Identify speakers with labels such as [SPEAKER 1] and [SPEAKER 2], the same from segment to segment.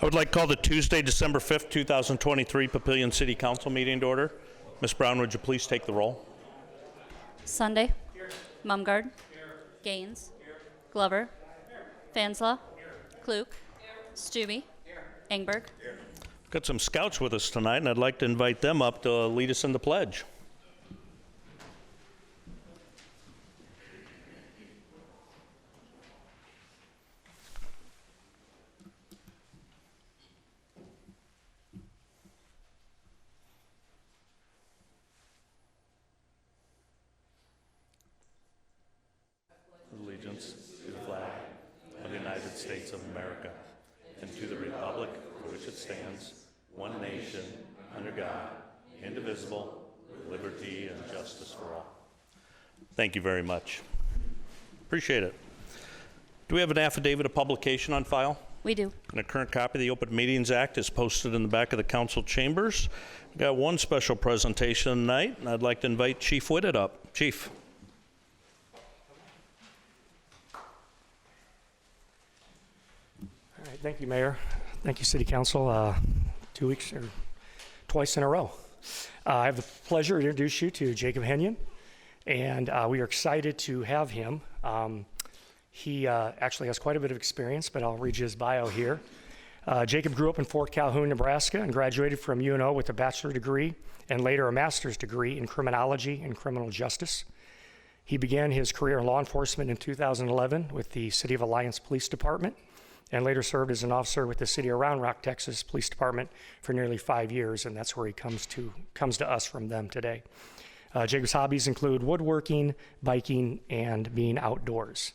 [SPEAKER 1] I would like to call the Tuesday, December 5th, 2023 Papillion City Council meeting to order. Ms. Brown, would you please take the roll?
[SPEAKER 2] Sunday. Mumgard. Gaines. Glover. Fansla. Klug. Stube. Engberg.
[SPEAKER 1] Got some scouts with us tonight, and I'd like to invite them up to lead us in the pledge. Allegiance to the flag of the United States of America and to the republic for which it stands, one nation, under God, indivisible, with liberty and justice for all. Thank you very much. Appreciate it. Do we have an affidavit of publication on file?
[SPEAKER 2] We do.
[SPEAKER 1] And a current copy of the Open Meetings Act is posted in the back of the council chambers. We've got one special presentation tonight, and I'd like to invite Chief Whitted up. Chief?
[SPEAKER 3] All right, thank you, Mayor. Thank you, City Council. Uh, Two weeks or twice in a row. Uh, I have the pleasure to introduce you to Jacob Henyon, and uh, we are excited to have him. Um, He uh, actually has quite a bit of experience, but I'll read you his bio here. Uh, Jacob grew up in Fort Calhoun, Nebraska, and graduated from UNO with a bachelor degree and later a master's degree in criminology and criminal justice. He began his career in law enforcement in 2011 with the City of Alliance Police Department and later served as an officer with the City of Round Rock, Texas Police Department for nearly five years, and that's where he comes to, comes to us from them today. Uh, Jacob's hobbies include woodworking, biking, and being outdoors.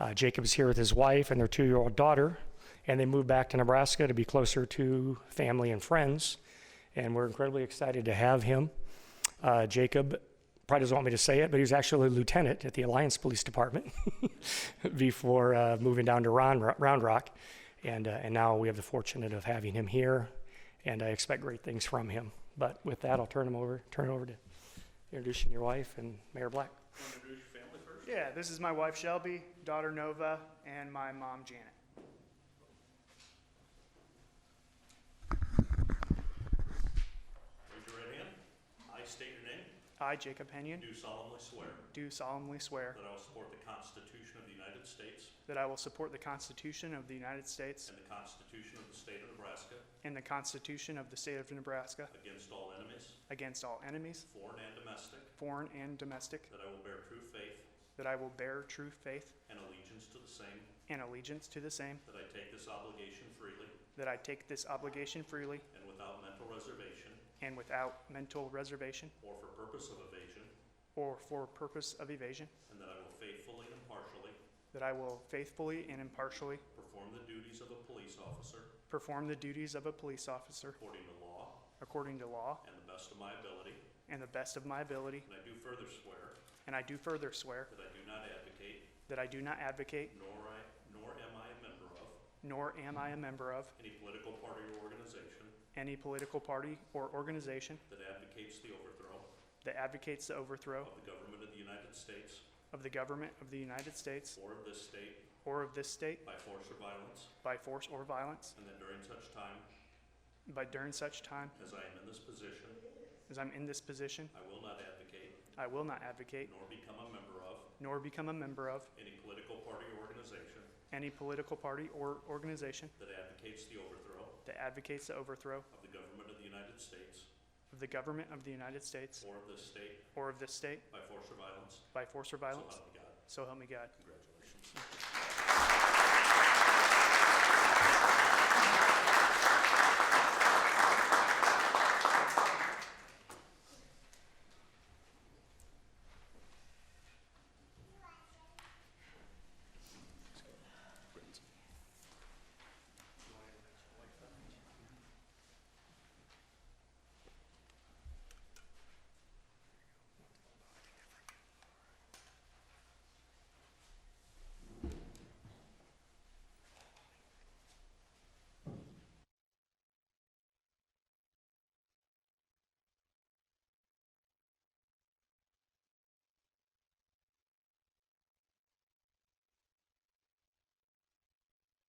[SPEAKER 3] Uh, Jacob's here with his wife and their two year old daughter, and they moved back to Nebraska to be closer to family and friends. And we're incredibly excited to have him. Uh, Jacob probably doesn't want me to say it, but he was actually a lieutenant at the Alliance Police Department before uh, moving down to Ron, Round Rock. And, uh, and now we have the fortunate of having him here, and I expect great things from him. But with that, I'll turn him over, turn it over to introducing your wife and Mayor Black.
[SPEAKER 4] Yeah, this is my wife Shelby, daughter Nova, and my mom Janet.
[SPEAKER 1] Raise your right hand. I state your name.
[SPEAKER 4] I, Jacob Henyon,
[SPEAKER 1] Do solemnly swear
[SPEAKER 4] do solemnly swear
[SPEAKER 1] that I will support the Constitution of the United States
[SPEAKER 4] that I will support the Constitution of the United States
[SPEAKER 1] and the Constitution of the State of Nebraska
[SPEAKER 4] and the Constitution of the State of Nebraska
[SPEAKER 1] against all enemies,
[SPEAKER 4] against all enemies,
[SPEAKER 1] foreign and domestic,
[SPEAKER 4] foreign and domestic,
[SPEAKER 1] that I will bear true faith
[SPEAKER 4] that I will bear true faith
[SPEAKER 1] and allegiance to the same,
[SPEAKER 4] and allegiance to the same,
[SPEAKER 1] that I take this obligation freely
[SPEAKER 4] that I take this obligation freely
[SPEAKER 1] and without mental reservation
[SPEAKER 4] and without mental reservation
[SPEAKER 1] or for purpose of evasion,
[SPEAKER 4] or for purpose of evasion,
[SPEAKER 1] and that I will faithfully and impartially
[SPEAKER 4] that I will faithfully and impartially
[SPEAKER 1] perform the duties of a police officer
[SPEAKER 4] perform the duties of a police officer
[SPEAKER 1] according to law
[SPEAKER 4] according to law
[SPEAKER 1] and the best of my ability.
[SPEAKER 4] and the best of my ability,
[SPEAKER 1] And I do further swear
[SPEAKER 4] and I do further swear
[SPEAKER 1] that I do not advocate,
[SPEAKER 4] that I do not advocate
[SPEAKER 1] nor I, nor am I a member of,
[SPEAKER 4] nor am I a member of
[SPEAKER 1] any political party or organization
[SPEAKER 4] any political party or organization
[SPEAKER 1] that advocates the overthrow
[SPEAKER 4] that advocates the overthrow
[SPEAKER 1] of the government of the United States
[SPEAKER 4] of the government of the United States
[SPEAKER 1] or of this state
[SPEAKER 4] or of this state
[SPEAKER 1] by force or violence,
[SPEAKER 4] by force or violence,
[SPEAKER 1] and that during such time
[SPEAKER 4] but during such time
[SPEAKER 1] as I am in this position,
[SPEAKER 4] as I'm in this position,
[SPEAKER 1] I will not advocate
[SPEAKER 4] I will not advocate
[SPEAKER 1] nor become a member of
[SPEAKER 4] nor become a member of
[SPEAKER 1] any political party or organization
[SPEAKER 4] any political party or organization
[SPEAKER 1] that advocates the overthrow
[SPEAKER 4] that advocates the overthrow
[SPEAKER 1] of the government of the United States
[SPEAKER 4] of the government of the United States
[SPEAKER 1] or of this state
[SPEAKER 4] or of this state
[SPEAKER 1] by force or violence.
[SPEAKER 4] by force or
[SPEAKER 1] So
[SPEAKER 4] violence.
[SPEAKER 1] help me God.
[SPEAKER 4] So help me God.
[SPEAKER 1] Congratulations.